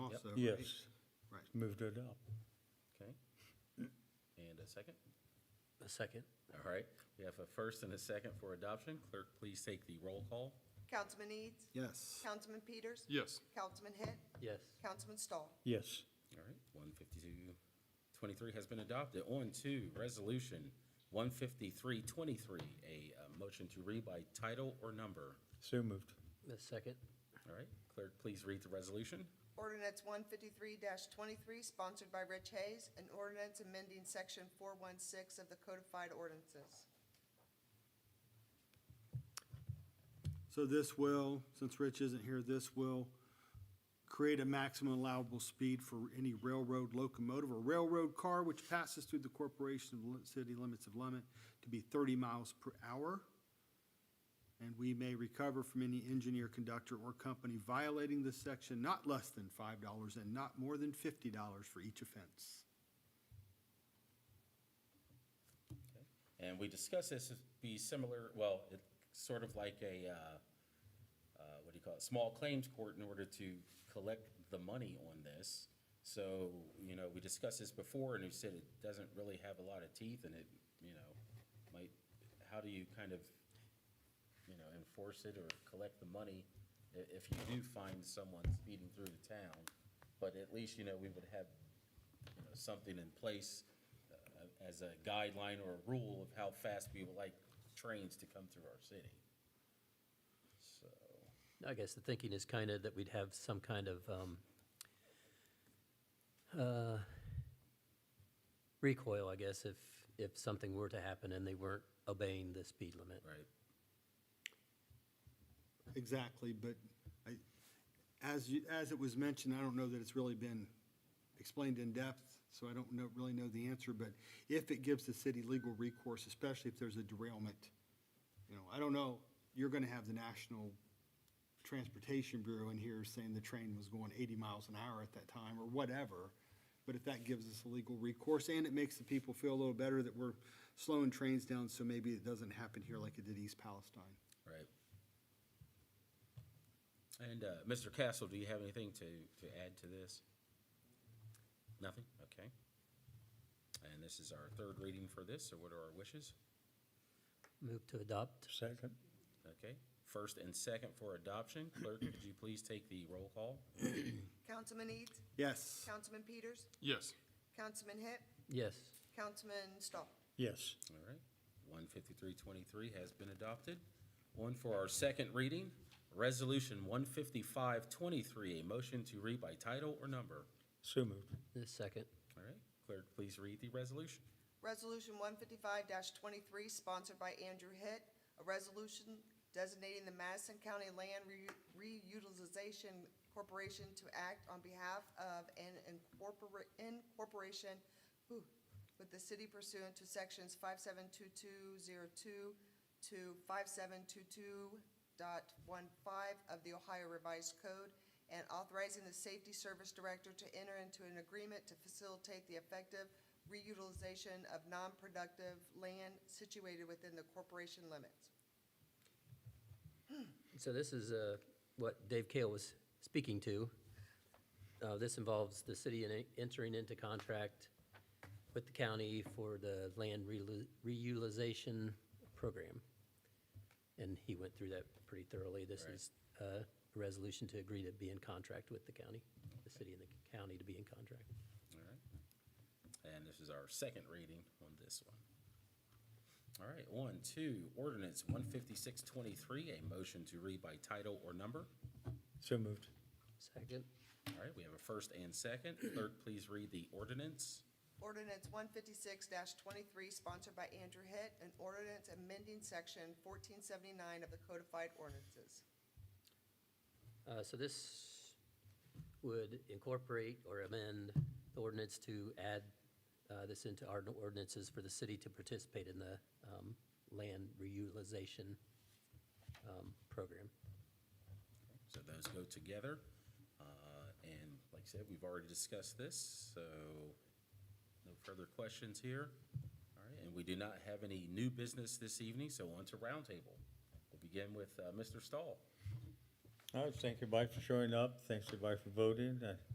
that right? Yes, Right. moved it up. Okay. And a second? A second? All right, we have a first and a second for adoption. Clerk, please take the roll call. Councilman Eads? Yes. Councilman Peters? Yes. Councilman Hitt? Yes. Councilman Stahl? Yes, All right, one fifty-two twenty-three has been adopted. On to resolution one fifty-three twenty-three, a uh, motion to read by title or number. so moved. A second? All right, clerk, please read the resolution. Ordinance one fifty-three twenty-three, sponsored by Rich Hayes, an ordinance amending section four one six of the codified ordinances. So this will, since Rich isn't here, this will create a maximum allowable speed for any railroad locomotive or railroad car which passes through the corporation of li- city limits of Lemon to be thirty miles per hour. And we may recover from any engineer, conductor, or company violating this section not less than five dollars and not more than fifty dollars for each offense. And we discussed this as be similar, well, it's sort of like a, uh, uh, what do you call it, small claims court in order to collect the money on this. So, you know, we discussed this before and we said it doesn't really have a lot of teeth and it, you know, might, how do you kind of, you know, enforce it or collect the money i- if you do find someone speeding through the town? But at least, you know, we would have, you know, something in place uh, as a guideline or a rule of how fast we would like trains to come through our city. So, I guess the thinking is kind of that we'd have some kind of um, uh, recoil, I guess, if, if something were to happen and they weren't obeying the speed limit. right, Exactly, but I, as you, as it was mentioned, I don't know that it's really been explained in depth, so I don't know, really know the answer, but if it gives the city legal recourse, especially if there's a derailment, you know, I don't know, you're gonna have the National Transportation Bureau in here saying the train was going eighty miles an hour at that time, or whatever. But if that gives us a legal recourse, and it makes the people feel a little better that we're slowing trains down, so maybe it doesn't happen here like it did East Palestine. right. And, uh, Mr. Castle, do you have anything to, to add to this? Nothing? Okay. And this is our third reading for this, so what are our wishes? Move to adopt? Second, Okay, first and second for adoption. Clerk, could you please take the roll call? Councilman Eads? Yes. Councilman Peters? Yes. Councilman Hitt? Yes. Councilman Stahl? yes, All right, one fifty-three twenty-three has been adopted. One for our second reading, Resolution one fifty-five twenty-three, a motion to read by title or number. so moved. A second? All right, clerk, please read the resolution. Resolution one fifty-five twenty-three, sponsored by Andrew Hitt, a resolution designating the Madison County Land Reu- Reutilization Corporation to act on behalf of an incorpora- incorporation whew, with the city pursuant to sections five-seven-two-two-zero-two to five-seven-two-two of the Ohio Revised Code, and authorizing the Safety Service Director to enter into an agreement to facilitate the effective reutilization of non-productive land situated within the corporation limits. So this is uh, what Dave Kale was speaking to. Uh, This involves the city in- entering into contract with the county for the land reu- reutilization program. And he went through that pretty thoroughly. This Right. is uh, a resolution to agree to be in contract with the county, the city and the county to be in contract. All right, and this is our second reading on this one. All right, one, two, ordinance one fifty-six twenty-three, a motion to read by title or number. So moved. Second? All right, we have a first and second. Clerk, please read the ordinance. Ordinance one fifty-six twenty-three, sponsored by Andrew Hitt, an ordinance amending section fourteen seventy-nine of the codified ordinances. Uh, So this would incorporate or amend the ordinance to add uh, this into our ordinances for the city to participate in the um, land reutilization um, program. So those go together. Uh, And like I said, we've already discussed this, so no further questions here. All right, and we do not have any new business this evening, so on to roundtable. We'll begin with uh, Mr. Stahl. All right, thank everybody for showing up. Thanks everybody for voting. I